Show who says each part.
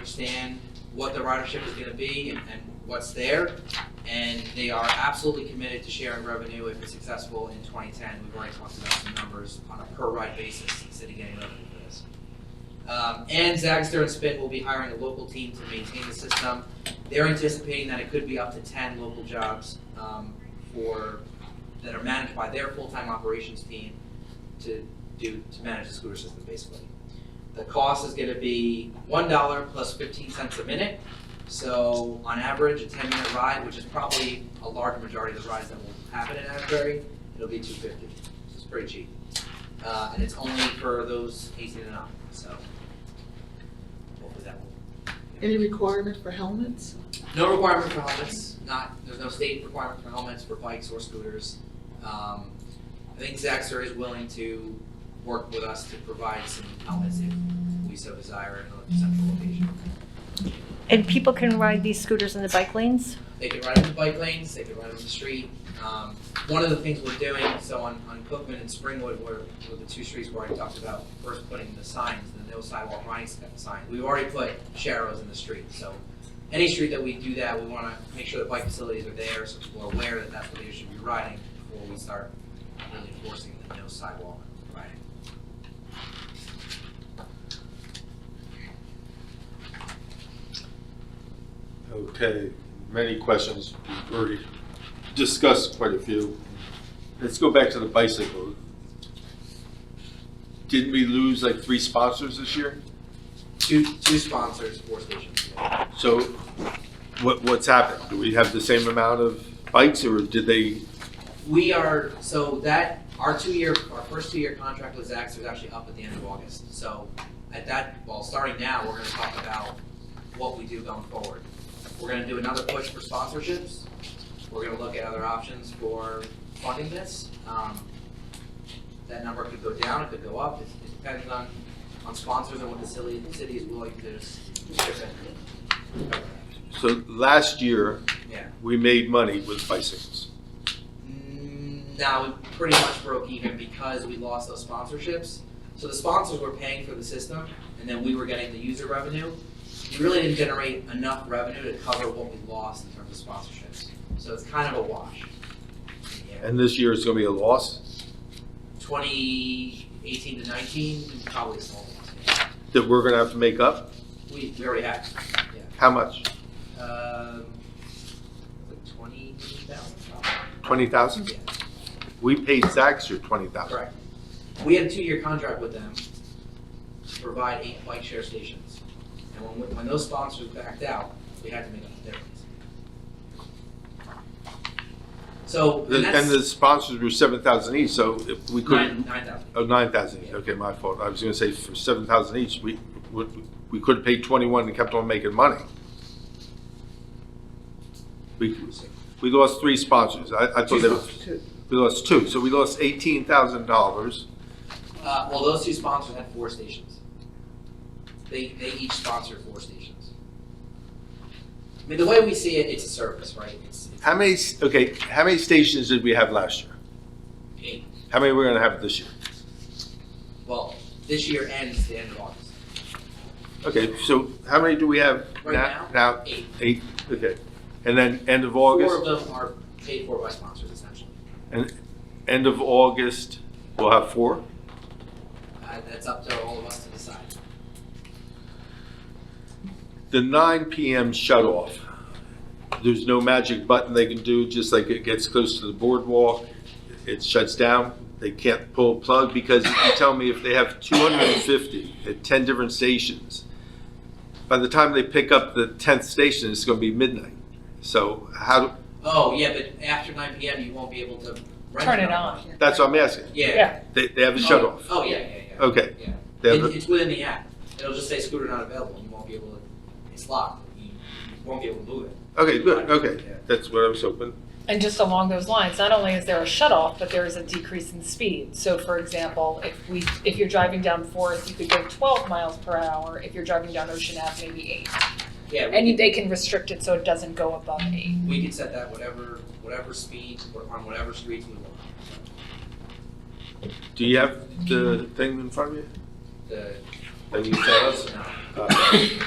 Speaker 1: understand what the ridership is gonna be and, and what's there. And they are absolutely committed to sharing revenue if it's successful in twenty ten. We've already talked about some numbers on a per ride basis instead of getting revenue for this. Um, and Zagster and Spin will be hiring a local team to maintain the system. They're anticipating that it could be up to ten local jobs, um, for, that are managed by their full-time operations team to do, to manage the scooter system basically. The cost is gonna be one dollar plus fifteen cents a minute. So on average, a ten-minute ride, which is probably a large majority of the rides that will happen in Asbury, it'll be two fifty. So it's pretty cheap. Uh, and it's only for those eighteen and up, so. Hopefully that will.
Speaker 2: Any requirement for helmets?
Speaker 1: No requirement for helmets, not, there's no state requirement for helmets for bikes or scooters. Um, I think Zaxter is willing to work with us to provide some helmets if we so desire in a central location.
Speaker 3: And people can ride these scooters in the bike lanes?
Speaker 1: They can ride on the bike lanes, they can ride on the street. Um, one of the things we're doing, so on, on Cookman and Springwood, where, were the two streets where I talked about first putting the signs, the no sidewalk riding sta- sign, we've already put sharrows in the street, so any street that we do that, we wanna make sure the bike facilities are there, so people are aware that that's what they should be riding before we start really enforcing the no sidewalk riding.
Speaker 4: Okay, many questions, we've already discussed quite a few. Let's go back to the bicycle. Didn't we lose like three sponsors this year?
Speaker 1: Two, two sponsors, four stations.
Speaker 4: So what, what's happened? Do we have the same amount of bikes or did they,
Speaker 1: We are, so that, our two-year, our first two-year contract with Zax is actually up at the end of August. So at that, well, starting now, we're gonna talk about what we do going forward. We're gonna do another push for sponsorships. We're gonna look at other options for funding this. Um, That number could go down, it could go up, it it depends on, on sponsors and what the city, the city is willing to chip in.
Speaker 4: so last year,
Speaker 1: Yeah.
Speaker 4: we made money with bicycles.
Speaker 1: Mm, No, we pretty much broke even because we lost those sponsorships. So the sponsors were paying for the system, and then we were getting the user revenue. We really didn't generate enough revenue to cover what we lost in terms of sponsorships. So it's kind of a wash. Yeah.
Speaker 4: And this year is gonna be a loss?
Speaker 1: Twenty eighteen to nineteen, we probably sold. it.
Speaker 4: That we're gonna have to make up?
Speaker 1: We, we already have, yeah.
Speaker 4: How much?
Speaker 1: Um, like twenty thousand probably.
Speaker 4: Twenty thousand?
Speaker 1: Yeah.
Speaker 4: We paid Zaxter twenty thousand.
Speaker 1: Correct. We had a two-year contract with them to provide eight bike share stations. And when, when those sponsors backed out, we had to make up the difference. So, and
Speaker 4: And the
Speaker 1: that's
Speaker 4: sponsors were seven thousand each, so if we couldn't,
Speaker 1: nine, nine thousand.
Speaker 4: Oh, nine thousand each, okay, my fault, I was gonna say for seven thousand each, we, we, we could've paid twenty-one and kept on making money. We, we lost three sponsors, I, I thought they were,
Speaker 2: Two.
Speaker 4: we lost two, so we lost eighteen thousand dollars.
Speaker 1: Uh, well, those two sponsors had four stations. They, they each sponsored four stations. I mean, the way we see it, it's a service, right? It's, it's
Speaker 4: How many, s- okay, how many stations did we have last year?
Speaker 1: eight.
Speaker 4: How many we're gonna have this year?
Speaker 1: Well, this year ends the end of August.
Speaker 4: Okay, so how many do we have
Speaker 1: Right
Speaker 4: now? Now,
Speaker 1: Eight.
Speaker 4: eight, okay, and then end of
Speaker 1: Four of
Speaker 4: August,
Speaker 1: them are paid for by sponsors essentially.
Speaker 4: and, end of August, we'll have four?
Speaker 1: Uh, that's up to all of us to decide.
Speaker 4: the 9 PM shut-off, there's no magic button they can do, just like it gets close to the boardwalk, it shuts down, they can't pull a plug, because if you tell me if they have 250 at 10 different stations, by the time they pick up the 10th station, it's going to be midnight. So how, do-
Speaker 1: Oh, yeah, but after nine PM, you won't be able to rent.
Speaker 5: Turn it
Speaker 1: another
Speaker 5: on.
Speaker 1: one.
Speaker 4: that's what I'm asking.
Speaker 1: Yeah.
Speaker 5: Yeah.
Speaker 4: They, they have a shut-off.
Speaker 1: Oh, yeah, yeah, yeah.
Speaker 4: Okay.
Speaker 1: Yeah.
Speaker 4: They have
Speaker 1: It-
Speaker 4: a-
Speaker 1: It's within the app. It'll just say scooter not available. You won't be able to, it's locked. You you won't be able to move it.
Speaker 4: Okay, good, okay. That's what I was hoping.
Speaker 5: And just along those lines, not only is there a shut off, but there is a decrease in speed. So for example, if we, if you're driving down Forest, you could go twelve miles per hour. If you're driving down Ocean Ave, maybe eight.
Speaker 1: Yeah, we
Speaker 5: And
Speaker 1: could,
Speaker 5: they can restrict it so it doesn't go above eight.
Speaker 1: we could set that whatever, whatever speed, or on whatever streets we want.
Speaker 4: Do you have the thing in front of you?
Speaker 1: The,
Speaker 4: That you tell us?
Speaker 1: no.
Speaker 4: Uh,